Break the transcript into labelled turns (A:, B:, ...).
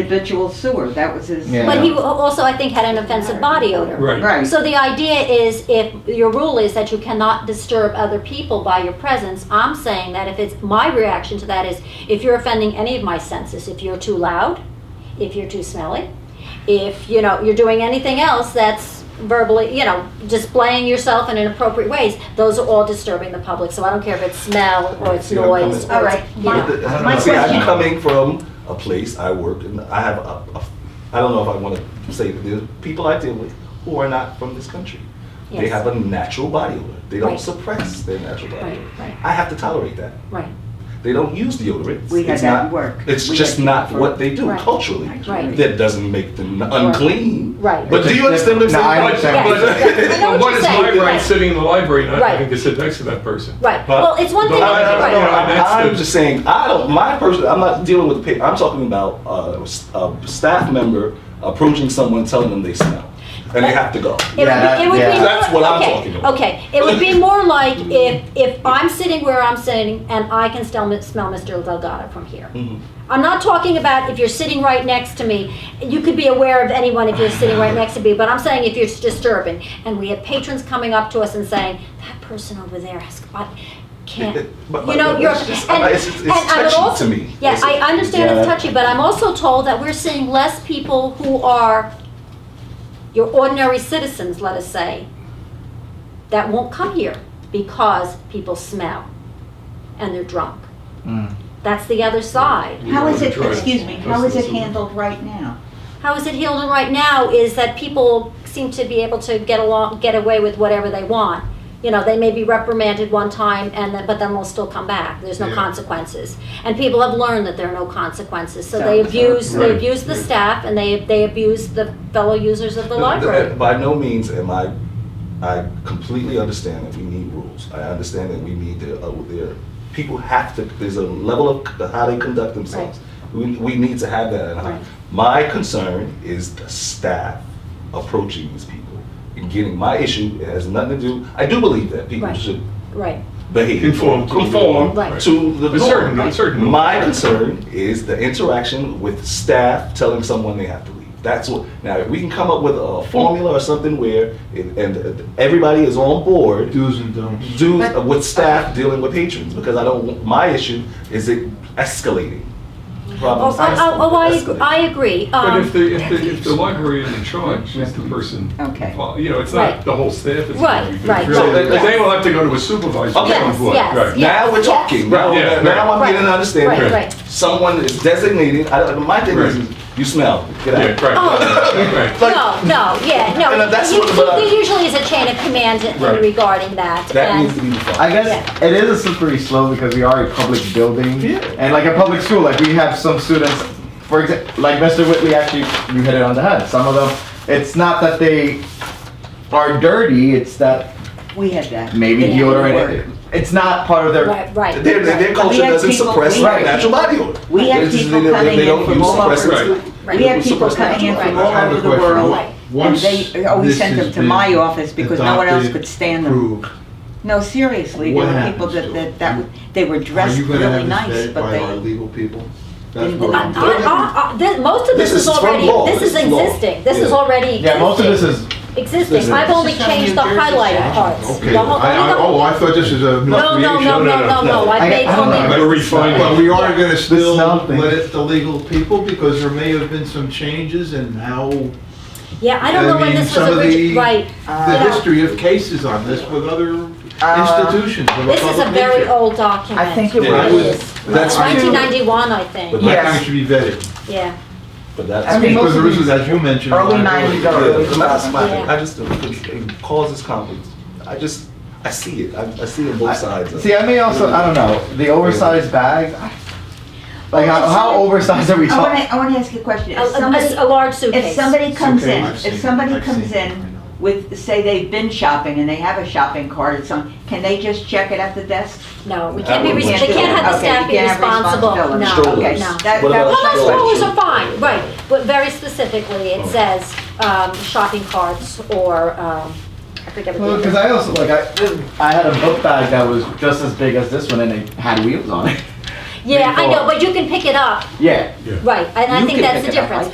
A: habitual sewer, that was his.
B: Yeah.
C: But he also, I think, had an offensive body odor.
D: Right.
A: Right.
C: So the idea is if your rule is that you cannot disturb other people by your presence, I'm saying that if it's, my reaction to that is if you're offending any of my senses, if you're too loud, if you're too smelly, if, you know, you're doing anything else that's verbally, you know, displaying yourself in inappropriate ways, those are all disturbing the public. So I don't care if it's smell or it's
E: See, I'm coming-
C: noise. or
F: All
C: it's-
F: right.
C: you
F: My-
C: know.
E: But the- I
F: my
E: don't know. See,
F: question-
E: I'm coming from a place I work in. I have a, a I don't know if I want to say that there's people I deal with who are not from this country. They
C: Yes.
E: have a natural body odor. They don't
C: Right.
E: suppress their natural body
C: Right,
E: odor.
C: right.
E: I have to tolerate that.
C: Right,
E: They don't use deodorants.
A: We had
E: It's
A: that
E: not-
A: at work.
E: It's
A: We
E: just
A: had
E: not
A: people-
E: what they do
C: Right.
E: culturally.
C: Right.
E: That doesn't make them unclean.
C: Right.
E: But do you understand what I'm
B: No,
E: saying?
B: I
E: But-
B: understand.
E: but-
C: Yes, yes. I know
E: but
C: what
E: what
C: you're
E: is
C: saying.
E: my
D: My
E: right?
D: right sitting in the library and I
C: Right.
D: I think to sit next to that person.
C: right.
E: But-
C: Well, it's one
D: But
C: thing.
E: No, no, no,
C: right.
E: no,
D: Right.
E: I'm-
D: That's
E: I'm
D: the-
E: just saying, I don't, my person, I'm not dealing with, pa- I'm talking about uh, s- a staff member approaching someone, telling them they smell, and they have to go.
B: Yeah,
C: It would be, it would
B: yeah.
C: be more,
E: That's what I'm
C: okay,
E: talking about.
C: Okay, it would be more like if if I'm sitting where I'm sitting and I can still m- smell Mr. Delgado from here.
E: Mhm.
C: I'm not talking about if you're sitting right next to me. You could be aware of anyone if you're sitting right next to me, but I'm saying if you're disturbing. And we had patrons coming up to us and saying, "That person over there has." I can't
E: But-
C: you
E: but-
C: know
E: but
C: you're
E: it's just-
C: and,
E: it's- it's
C: and I'm
E: touchy
C: also,
E: to me.
C: yeah
E: It's-
C: I understand it's
E: Yeah.
C: touchy but I'm also told that we're seeing less people who are your ordinary citizens, let us say, that won't come here because people smell and they're drunk.
B: Mm.
C: That's the other side.
D: We
A: How
D: wanna
A: is it,
D: try to-
A: excuse me, how
D: that's
A: is it
D: the-
A: handled right now?
C: How is it healed right now is that people seem to be able to get along, get away with whatever they want. You know, they may be reprimanded one time and then, but then they'll still come back. There's no
D: Yeah.
C: consequences. And people have learned that there are no consequences. So
A: So-
C: they abuse,
D: Right,
C: they abuse the
D: right.
C: staff and they, they abuse the fellow users of the library.
E: By no means am I, I completely understand that we need rules. I understand that we need to, uh, there, people have to, there's a level of c- how they conduct themselves. We, we need to have that.
C: Right.
E: And My concern is the staff approaching these people and getting, my issue It has nothing to do, I do believe that people
C: Right.
E: should
C: Right,
E: behave.
D: Conform to the
E: Conform
D: norm. Right.
E: to the
D: A certain-
E: norm.
D: a certain norm.
E: My concern is the interaction with staff telling someone they have to leave. That's what, now, if we can come up with a formula or something where, it- and everybody is on board,
G: Do's and don'ts.
E: do with staff dealing with patrons, because I don't, want- my issue is it escalating.
C: Oh,
E: Problems
C: I- I- oh, I,
E: escalating.
C: ag- I agree.
D: But
C: Um,
D: if the, if the, if the library is in charge, it's the person.
A: Okay.
D: Well, You know, it's
C: Right.
D: not the whole staff. it's
C: Right,
D: really-
C: right.
D: really-
E: So,
D: They
E: yes.
D: they will have to go to a supervisor.
E: Okay.
D: at some point.
C: Yes, yes.
D: Right.
E: Now we're talking. Now,
D: Right, yeah,
E: now
D: right.
E: I'm getting an understanding.
C: Right, right.
E: Someone is designated. I, my thing is,
D: Right.
E: you smell. Get out.
D: Yeah, right,
C: Oh.
D: right, right.
E: Like-
C: no, no, yeah, no.
E: And that's
C: you-
E: what- but I-
C: there usually is a chain of command in-
D: Right.
C: regarding that.
E: That
C: and-
E: needs to be defined.
B: I guess it is a slippery slope because we are a public building
E: Yeah.
B: and like a public school. Like we have some students, for example, like Mr. Whitley. Actually, you hit it on the head. Some of them, it's not that they are dirty. It's that
A: We had that.
B: maybe
A: It didn't work.
B: deodorant. It's not part of their.
C: Right, right.
E: Their, their, their culture
A: We have
E: doesn't
A: people-
E: suppress
A: we have
E: natural body odor.
A: We have
E: It's just
A: people
E: they- they-
A: coming
E: they
A: in
E: don't
A: from
E: use
A: all over.
E: suppressants.
C: Right.
A: We
E: They
A: have
E: don't
A: people
E: suppress
A: coming in
E: natural
A: from
E: body
A: all
E: odor.
G: I have a
A: over the
G: question.
A: world.
G: Right.
A: And
G: Once
A: they always
G: this
A: sent them
G: has
A: to my
G: been
A: office because no one else
G: adopted,
A: could stand them.
G: approved,
A: No, seriously, there
G: What
A: were people that,
G: happens to
A: that, that,
G: it?
A: would- they were
G: Are
A: dressed
G: you gonna
A: really
G: have this
A: nice,
G: vetted
A: but
G: by our
A: they,
G: legal people? That's
A: Didn't-
G: what
C: I,
G: I'm.
C: I, I, uh, this, most of this,
E: This
C: is
E: is from
C: already
E: law.
C: this is
E: This is law.
C: existing. This is
E: Yeah.
C: already
B: Yeah, most of this is
C: existing.
E: This is-
C: I've only
F: This is from
C: changed the
F: New Jersey
C: highlighted
F: statute.
C: parts.
G: Okay,
C: The whole-
G: I, I,
C: only
G: oh, I thought this is a.
C: the- no, no, no, no, no, no,
E: no, no.
C: I
B: I-
C: made
B: I don't
C: only
B: know.
D: Better refine
G: But
D: it.
G: we are gonna still
B: smell thing.
G: let it to legal people because there may have been some changes in how,
C: yeah. I don't
G: I
C: know when
G: mean,
C: this was
G: some of
C: origi-
G: the-
C: right.
G: the
C: Yeah.
G: history of cases on this with other
A: Uh,
G: institutions of a
C: This is a
G: public
C: very
G: nature.
C: old document.
B: I think it
E: Yeah.
C: It
G: was-
C: is.
E: That's
G: I do-
C: 1991, I think.
E: But
G: I
B: Yeah.
G: think it should be vetted.
C: Yeah.
E: But that's.
B: I mean,
G: Because
B: most of
G: there is,
B: these
G: as you mentioned.
B: early
G: liability.
B: 90s
E: Yeah,
B: are-
E: it's not smiling.
C: Yeah.
E: I just, it causes conflict. I just, I see it. I, I see it both sides. of it.
B: See, I may also, I don't know, the oversized bags. I- Like, how, how oversized are we
A: Oh, I wanna,
B: talking?
A: I wanna ask you a question. If
C: A, a-
A: somebody-
C: a large suitcase.
A: If somebody comes
G: okay,
A: in,
G: I've seen
A: if
G: it,
A: somebody
G: I've
A: comes
G: seen it,
A: in
G: I know.
A: with, say they've been shopping and they have a shopping cart or something, can they just check it at the desk?
C: No, we can't be,
E: would
C: res-
E: want
C: they
E: to-
C: can't have the
A: Okay,
C: staff
A: you
C: be
A: can't have
C: responsible, no,
A: responsibility.
C: no.
E: Strollers.
A: That-
E: What
A: that
E: about
A: was my
C: Well, my
E: strollers?
C: strollers are fine, right, but very specifically, it says, um, shopping carts or, um, I forget what the.
B: Because I also, like, I, I had a book bag that was just as big as this one and it had wheels on it.
C: Yeah, I know,
B: before.
C: but you can pick it up,
B: Yeah.
C: right, and I
B: You
C: think
B: can
C: that's
B: pick it up.
C: the
B: I
C: difference.